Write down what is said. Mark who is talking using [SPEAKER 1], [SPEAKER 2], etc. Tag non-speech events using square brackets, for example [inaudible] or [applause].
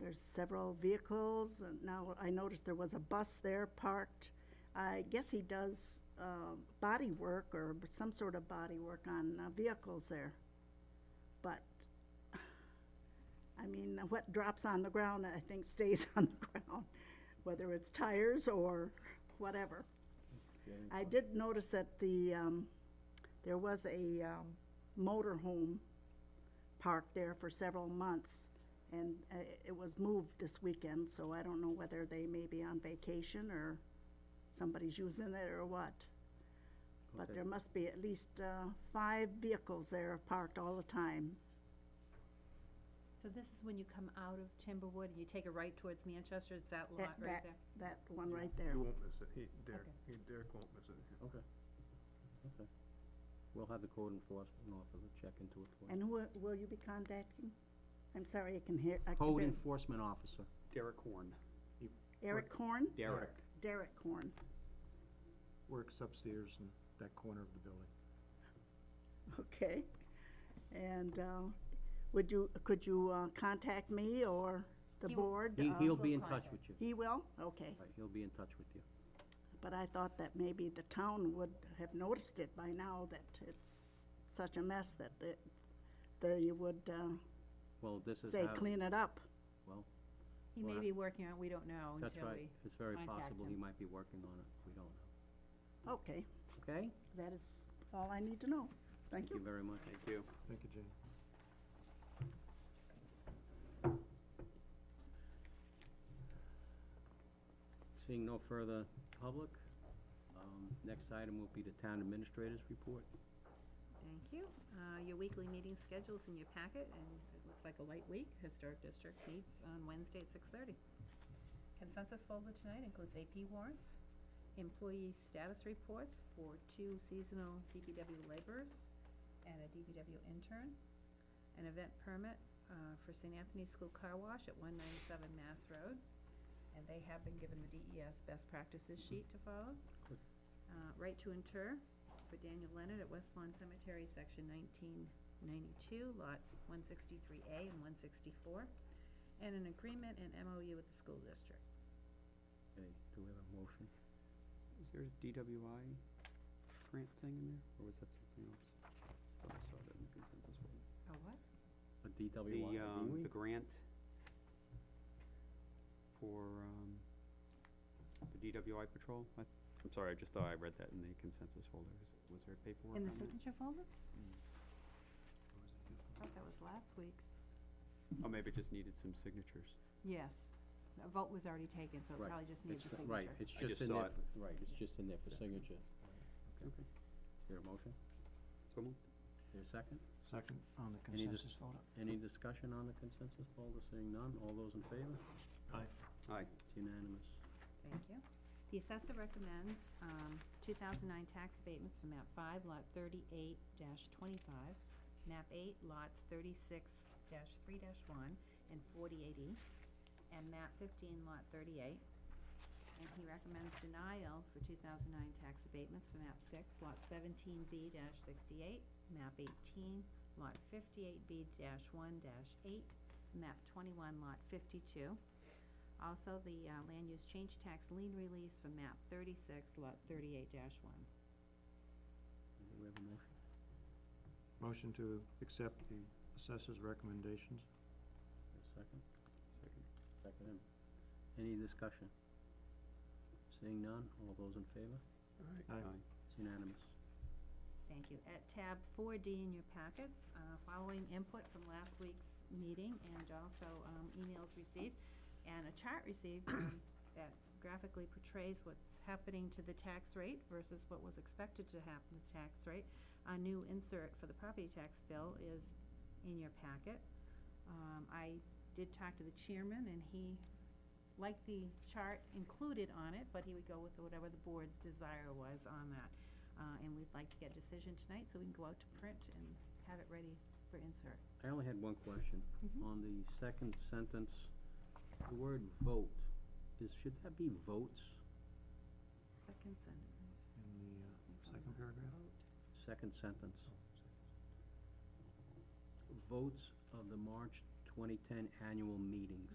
[SPEAKER 1] There's several vehicles, and now I noticed there was a bus there parked. I guess he does uh, body work or b- some sort of body work on uh, vehicles there. But, I mean, what drops on the ground, I think stays [laughs] on the ground, whether it's tires or whatever. I did notice that the, um, there was a, um, motor home parked there for several months. And, uh, it was moved this weekend, so I don't know whether they may be on vacation or somebody's using it or what. But
[SPEAKER 2] Okay.
[SPEAKER 1] there must be at least, uh, five vehicles there parked all the time.
[SPEAKER 3] So this is when you come out of Timberwood and you take a right towards Manchester, is that lot
[SPEAKER 1] That-
[SPEAKER 3] right
[SPEAKER 1] that-
[SPEAKER 3] there?
[SPEAKER 1] That one right there.
[SPEAKER 4] You won't miss it, he, Derek,
[SPEAKER 3] Okay.
[SPEAKER 4] he, Derek won't miss it.
[SPEAKER 2] Okay, okay. We'll have the code enforcement officer check into it for you.
[SPEAKER 1] And who, will- will you be contacting? I'm sorry, I can hear, I can
[SPEAKER 2] Code
[SPEAKER 1] barely-
[SPEAKER 2] enforcement officer.
[SPEAKER 5] Derek Horn,
[SPEAKER 1] Eric Horn?
[SPEAKER 5] Derek.
[SPEAKER 1] Derek Horn. [laughs]
[SPEAKER 4] Works upstairs in that corner of the building.
[SPEAKER 1] Okay. And uh, would you, could you uh, contact me or the
[SPEAKER 3] He will.
[SPEAKER 1] board?
[SPEAKER 2] He,
[SPEAKER 1] Uh,
[SPEAKER 2] he'll be
[SPEAKER 3] We'll
[SPEAKER 2] in touch
[SPEAKER 3] contact.
[SPEAKER 2] with you.
[SPEAKER 1] He will? Okay.
[SPEAKER 2] Right, he'll be in touch with you.
[SPEAKER 1] But I thought that maybe the town would have noticed it by now, that it's such a mess that it- they would uh,
[SPEAKER 2] Well, this is
[SPEAKER 1] say,
[SPEAKER 2] how,
[SPEAKER 1] clean it up.
[SPEAKER 2] well,
[SPEAKER 3] He may
[SPEAKER 2] Well,
[SPEAKER 3] be working on it, we don't know
[SPEAKER 2] that's
[SPEAKER 3] until
[SPEAKER 2] right.
[SPEAKER 3] we,
[SPEAKER 2] It's very
[SPEAKER 3] contact
[SPEAKER 2] possible he
[SPEAKER 3] him.
[SPEAKER 2] might be working on it. We don't know.
[SPEAKER 1] Okay,
[SPEAKER 2] Okay?
[SPEAKER 1] that is all I need to know. Thank you.
[SPEAKER 2] very much.
[SPEAKER 5] Thank you.
[SPEAKER 4] Thank you, Jane.
[SPEAKER 2] Seeing no further public, um, next item will be the town administrator's report.
[SPEAKER 3] thank you. Uh, Your weekly meeting schedule's in your packet, and it looks like a light week. Historic District meets on Wednesday at six-thirty. Consensus folder tonight includes AP warrants, employee status reports for two seasonal DPW laborers and a DPW intern, an event permit uh, for St. Anthony's School Car Wash at one ninety-seven Mass Road, and they have been given the DES best practices sheet to follow.
[SPEAKER 2] Good.
[SPEAKER 3] Uh, Right to inter for Daniel Leonard at West Lawn Cemetery, section nineteen ninety-two, lots one sixty-three A and one sixty-four, and an agreement and MOU with the school district.
[SPEAKER 2] Okay, do we have a motion?
[SPEAKER 5] Is there a DWI grant thing in there, or was that something else? Thought I saw that in the consensus folder.
[SPEAKER 3] A what?
[SPEAKER 2] A DWI?
[SPEAKER 5] The, um,
[SPEAKER 2] agreement?
[SPEAKER 5] the grant for, um, the DWI patrol, I, I'm sorry, I just thought I read that in the consensus folder, Is- was there paperwork
[SPEAKER 3] In
[SPEAKER 5] on
[SPEAKER 3] the
[SPEAKER 5] that?
[SPEAKER 3] signature folder?
[SPEAKER 2] Mm.
[SPEAKER 4] Where was it? This
[SPEAKER 3] I thought that was last week's.
[SPEAKER 5] Oh, maybe it just needed some signatures.
[SPEAKER 3] Yes. The vote was already taken, so it
[SPEAKER 2] Right.
[SPEAKER 3] probably just needs
[SPEAKER 2] It's
[SPEAKER 3] a
[SPEAKER 2] fi- Right,
[SPEAKER 3] signature.
[SPEAKER 2] it's
[SPEAKER 5] I
[SPEAKER 2] just
[SPEAKER 5] just
[SPEAKER 2] in
[SPEAKER 5] saw
[SPEAKER 2] there,
[SPEAKER 5] it.
[SPEAKER 2] for- right, it's just in there for signature.
[SPEAKER 5] Okay.
[SPEAKER 2] Is there a motion?
[SPEAKER 5] So moved.
[SPEAKER 2] Is there a second?
[SPEAKER 4] one? Second on the
[SPEAKER 2] Any dis-
[SPEAKER 4] consensus folder.
[SPEAKER 2] Any discussion on the consensus folder? Seeing none, all those in favor?
[SPEAKER 4] Aye.
[SPEAKER 5] Aye.
[SPEAKER 2] It's unanimous.
[SPEAKER 3] Thank you. The assessor recommends um, 2009 tax abatements for map 5, lot 38-25, map 8, lots 36-3-1 and 48E, and map 15, lot 38. And he recommends denial for 2009 tax abatements for map 6, lot 17B-68, map 18, lot 58B-1-8, map 21, lot 52, also, the uh, land use change tax lien release for map thirty-six, lot thirty-eight one.
[SPEAKER 2] Do we have a motion?
[SPEAKER 4] Motion to accept the assessor's recommendations.
[SPEAKER 2] Is there a second?
[SPEAKER 5] Second.
[SPEAKER 2] Second. Any discussion? Seeing none, all those in favor?
[SPEAKER 4] Aye.
[SPEAKER 5] Aye.
[SPEAKER 2] It's unanimous.
[SPEAKER 3] Thank you. At tab four D in your packets, uh, following input from last week's meeting and also um, emails received and a chart received um, [coughs] that graphically portrays what's happening to the tax rate versus what was expected to happen to the tax rate. A new insert for the property tax bill is in your packet. Um, I did talk to the chairman and he liked the chart included on it, but he would go with whatever the board's desire was on that uh, and we'd like to get a decision tonight so we can go out to print and have it ready for insert.
[SPEAKER 2] I only had one question.
[SPEAKER 3] Mhm.
[SPEAKER 2] On the second sentence, the word vote, is, should that be votes?
[SPEAKER 3] Second sentence.
[SPEAKER 4] In the uh, second paragraph?
[SPEAKER 3] Vote.
[SPEAKER 2] Second sentence. Votes of the March twenty-ten annual meetings.